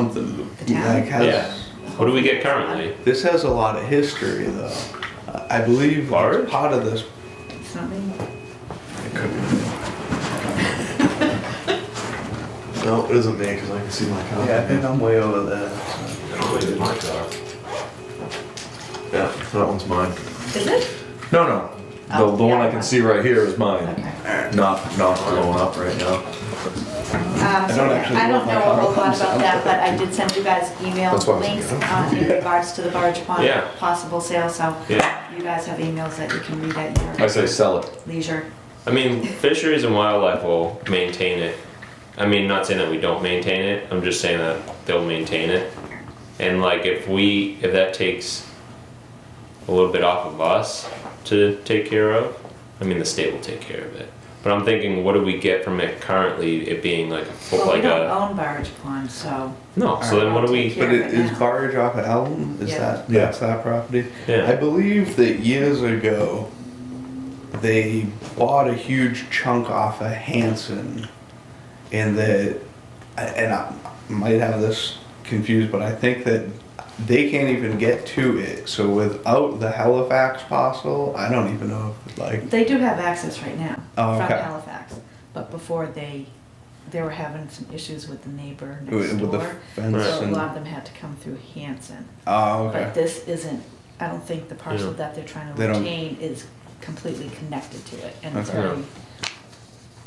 something. Like has, Yeah. What do we get currently? This has a lot of history, though. I I believe Large? part of this. It's not me. It could be. no, it isn't me because I can see my copy. Yeah, uh, I think I'm way over there. Yeah, that one's mine. Is it? No, no. Oh, The, the one yeah. I can see right here is mine. Okay. Not, not blowing up right now. Um, don't actually I don't know know if a my car whole lot comes about out. that, but I did send you guys email That's why I was links like, uh, in regards to the barge pond Yeah. possible sale, so Yeah. you guys have emails that you can read at I your say sell it. leisure. I mean, fisheries and wildlife will maintain it. I mean, not saying that we don't maintain it. I'm just saying that they'll maintain it. And like, if we, if that takes a little bit off of us to take care of, I mean, the state will take care of it. But I'm thinking, what do we get from it currently? It being like, a fo- Well, we like don't a own barge pond, so no. So then, what do we? Yeah, But it right is now. barge off of Alton? Is Yeah. that Yeah. that's that property? Yeah. I believe that years ago they bought a huge chunk off of Hanson, and that and I might have this confused, but I think that they can't even get to it. So without the Halifax parcel, I don't even know if like they do have access right now Oh, from okay. Halifax. But before they, they were having some issues with the neighbor next with with the door. fence So a and lot of them had to come through Hanson. oh But okay. this isn't, I don't think the parcel Yeah. that they're trying to They don't- retain is completely connected to it, and it's Okay. very.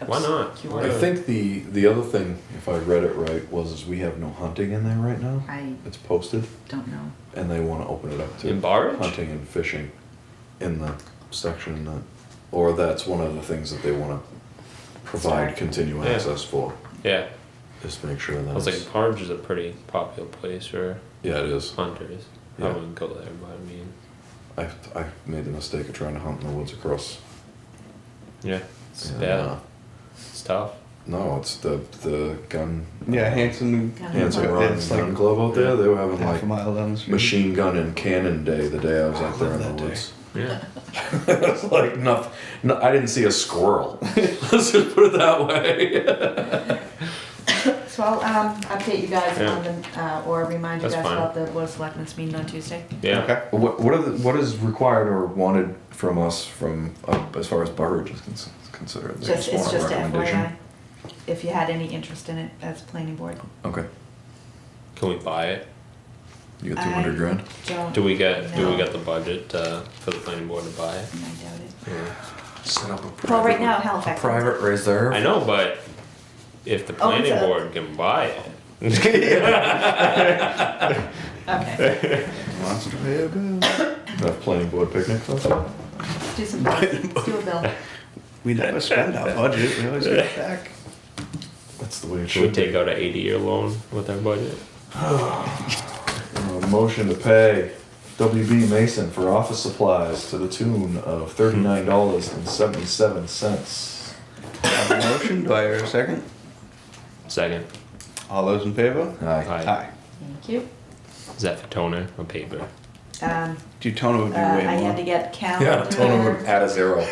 Why not? obscure. Why I not? think the, the other thing, if I read it right, was is we have no hunting in there right now. I It's posted, don't know. and they want to open it up to In barge? hunting and fishing in the section that, or that's one of the things that they want to provide Sorry. continued Yeah. access for. Yeah. Just make sure I that. was it's- like, Parge is a pretty popular place for yeah, it is. hunters. I Yeah. wouldn't go there, but I mean, I I made the mistake of trying to hunt in the woods across. yeah, it's and, bad. uh, It's tough. no, it's the the gun. Yeah, Hanson. Hanson Yeah, Run It's Gun like Club out there. They were having half like a mile down the street. machine gun and cannon day the day I was out there in the That day. woods. Yeah. it's like nothing. No, I didn't see a squirrel. Let's just put it that way. So I'll, um, update you guys Yeah. on the, uh, or remind you That's guys fine. about the Board of Selectmen's meeting on Tuesday. Yeah. Okay. What what, are the, what is required or wanted from us from uh, as far as barge is con- considered? They Just, it's want a just a recommendation? FYI, if you had any interest in it as planning board. Okay, Can we buy it? you get I- two hundred grand. Don't, Do we get do we No. get the budget uh, for the planning board to buy it? I doubt it. Or- Set up a Well, right now Halifax. reserve. I know, but if the Oh, it's planning a- board can buy it, Okay, Wants to pay a bill. Enough planning board picnic. though? do some, bills. do a bill. We never spend our budget, we always get it back. That's the way it should we should. take out an eighty-year loan with our budget? Uh, motion to pay WB Mason for office supplies to the tune of thirty nine dollars and seventy seven cents. I have a motion, do I hear a second? Second, All those in favor? Aye. Aye. Thank you. is that for toner or paper? Um, Daytona would uh, be I way had to more. get Yeah, Tony would calendar, add a zero.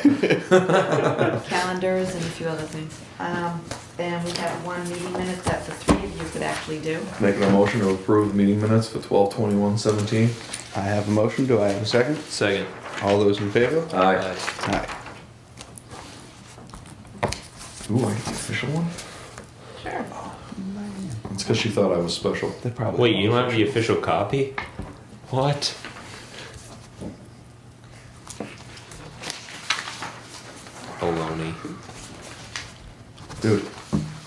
calendars and a few other things. Um, and we have one meeting minute that the three of you could actually do. Making a motion to approve the meeting minutes for twelve twenty-one seventeen. I have a motion, do I have a second? Second. All those in favor? Aye. Aye. Ooh, I get the official one? Sure. It's because she thought I was special. They probably. Wait, you won't. don't have the official copy? What? Baloney. Dude,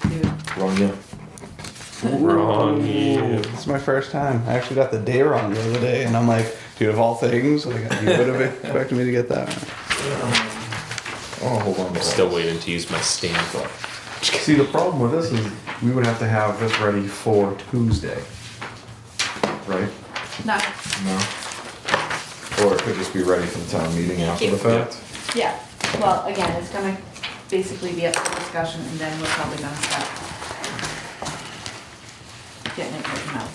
Dude, wrong year. Wrong year. It's my first time, I actually got the day wrong the other day, and I'm like, dude, of all things, like, you would have expected me to get that. one. Oh, hold on. I'm still waiting to use my stamp. See, the problem with this is we would have to have this ready for Tuesday. Right? No, No. Or it could just be ready for the town meeting after the fact. yeah, well, again, it's gonna basically be up for discussion and then we're probably gonna start getting it written out.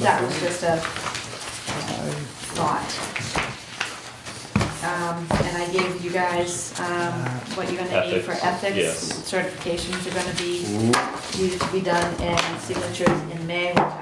That was just a thought. um, and I gave you guys, um, what you're gonna need for Ethics, ethics. yes. Certifications are gonna be, needed to be done, and signatures in May, we'll